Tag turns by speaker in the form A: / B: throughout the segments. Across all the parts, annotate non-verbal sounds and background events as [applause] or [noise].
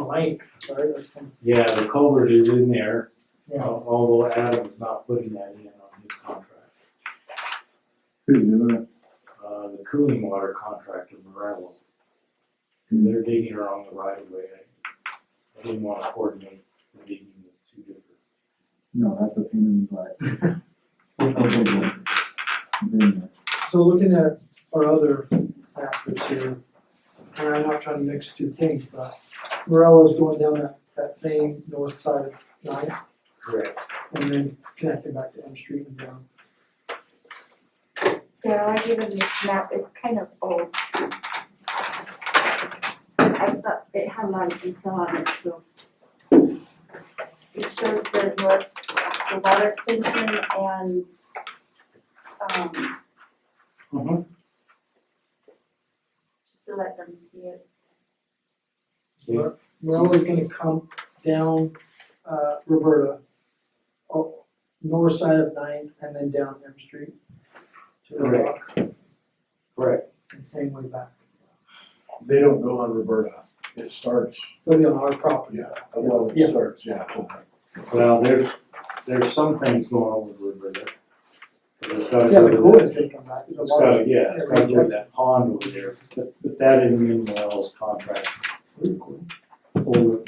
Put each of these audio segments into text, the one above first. A: lake, right, or something,
B: Yeah, the culvert is in there,
A: yeah.
B: al- although Adam's not putting that in on his contract.
C: Who's doing it?
B: Uh, the cooling water contract of Morello. Cause they're digging around the right of way. I- I didn't wanna coordinate the digging of two different.
C: No, that's a pain in the butt.
A: So looking at our other factors here, and I'm not trying to mix two things, but Morello's going down that, that same north side of Ninth
B: Correct.
A: and then connecting back to M Street and down.
D: Daryl, I gave him this map, it's kind of old. I thought it had a lot of detail on it, so. It shows the north, the water extension and, um,
A: Mm-hmm.
B: Mhm.
D: just to let them see it.
B: Yeah.
A: Morello's gonna come down, uh, Roberta, oh, north side of Ninth and then down M Street to the
B: Correct.
A: rock
B: Correct.
A: and same way back.
E: [laughs] They don't go on Roberta, it starts,
A: They'll be on our property.
E: yeah, well,
A: Yeah.
E: it starts, yeah. okay.
B: Well, there's, there's some things going on with Woodburn.
A: Yeah, the coolest they come back, the
B: It's got,
A: water.
B: yeah, it's got to that pond over there, but, but that isn't in Morello's contract. Or-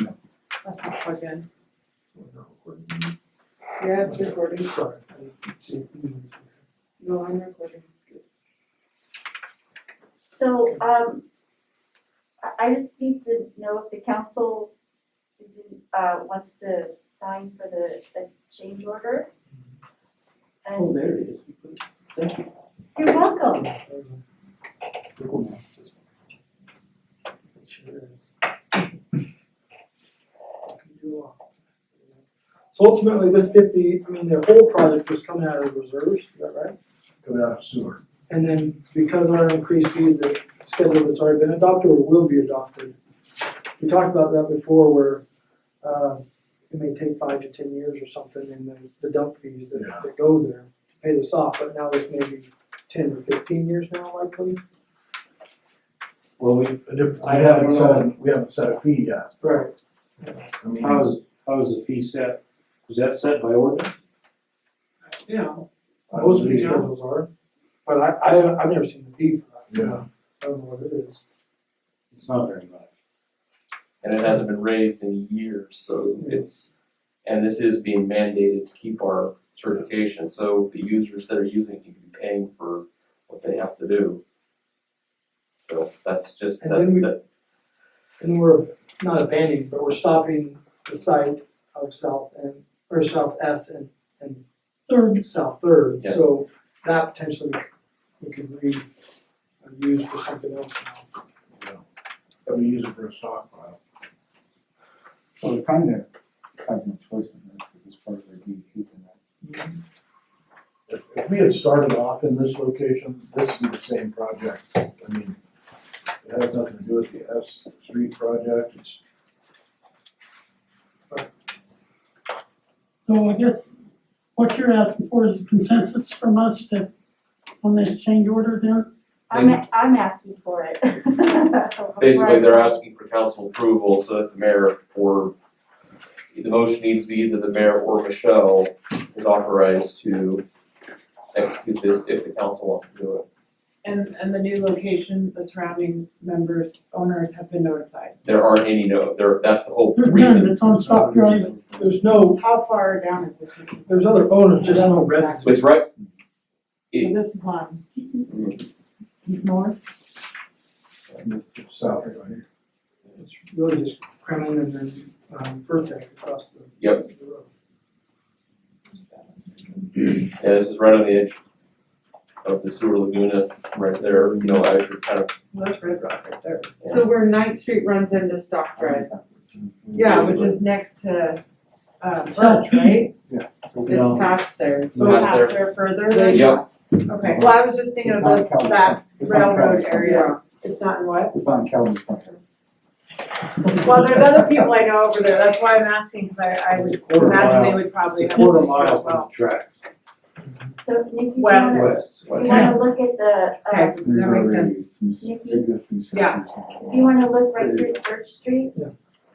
F: That's not plugged in.
A: Yeah,
F: Yeah, it's recording.
A: Sorry, I just didn't see it.
F: No, I'm recording.
D: So, um, I, I just need to know if the council, uh, wants to sign for the, the change order.
B: Oh,
D: And
B: there it is. Thank you.
D: you're welcome.
B: Google Maps is-
A: So ultimately, this fifty, I mean, their whole project was coming out of reserves, is that right?
E: Coming out of sewer.
A: And then because of our increased fee, the schedule that's already been adopted or will be adopted. We talked about that before where, uh, it may take five to ten years or something and then the dump fees that,
E: Yeah.
A: that go there to pay this off, but now it's maybe ten or fifteen years now likely.
B: Well, we,
E: And if-
B: I
E: We
B: haven't
E: haven't
B: known.
E: set, we haven't set a fee yet,
A: Right.
E: I mean,
B: how's, how's the fee set? Was that set by ordinance?
F: Yeah.
E: I
A: Most of
E: believe-
A: these schedules are, but I, I haven't, I've never seen the fee for that.
E: Yeah.
A: I don't know what it is.
B: It's not very much.
G: and it hasn't been raised in years, so it's, and this is being mandated to keep our certification, so the users that are using it can be paying for what they have to do. So that's just,
A: And
G: that's,
A: then we-
G: that,
A: And we're not abandoning, but we're stopping the site of South and, or South S and, and Third. South Third,
G: Yeah.
A: so that potentially we could re, uh, use for something else now.
E: that we use it for a stockpile.
C: Well, they kind of have no choice in this, because it's part of their DEP and
E: E If, if we had started off in this location, this would be the same project, I mean, it has nothing to do with the S Street project, it's,
H: So I guess what you're asking for is consensus from us to, on this change order then?
D: I'm, a- I'm asking for it. [laughs]
G: basically they're asking for council approval so that the mayor or the motion needs to be either the mayor or Michelle is authorized to execute this if the council wants to do it.
F: And, and the new location, the surrounding members, owners have been notified.
G: There aren't any no, there, that's the whole
H: There's
G: reason
H: none, it's on Stock Drive.
A: There's no,
F: How far down is this?
A: there's other owners, just no residents.
G: It's right,
F: So this is on north?
E: it's south, right?
A: It's really just Kremlin and then, um, Vertex across the.
G: Yep.
A: the road.
G: yeah, this is right on the edge of the sewer laguna, right there, you know, as you're kind of,
F: Well, that's Red Rock right there.
G: Yeah.
F: So where Ninth Street runs into Stock Drive. Yeah, which is next to, uh, Birch, right? It's past there.
G: So past
F: Past there further than?
G: Yep.
F: Okay, well, I was just thinking of this, that railroad area. It's not in what?
C: It's on Calvin's contract.
F: Well, there's other people I know over there, that's why I'm asking, because I, I would
B: Quarter
F: imagine they
B: mile.
F: would probably
B: It's
F: have
B: a quarter
F: this as
B: mile from
F: well.
B: the track,
D: So Nikki, you
F: West.
D: wanna,
B: west,
D: you
B: west.
D: wanna look at the, um,
C: There's
F: That makes
C: already some
D: Nikki?
C: existing structures.
D: do you wanna look right through Church Street?
A: Yeah.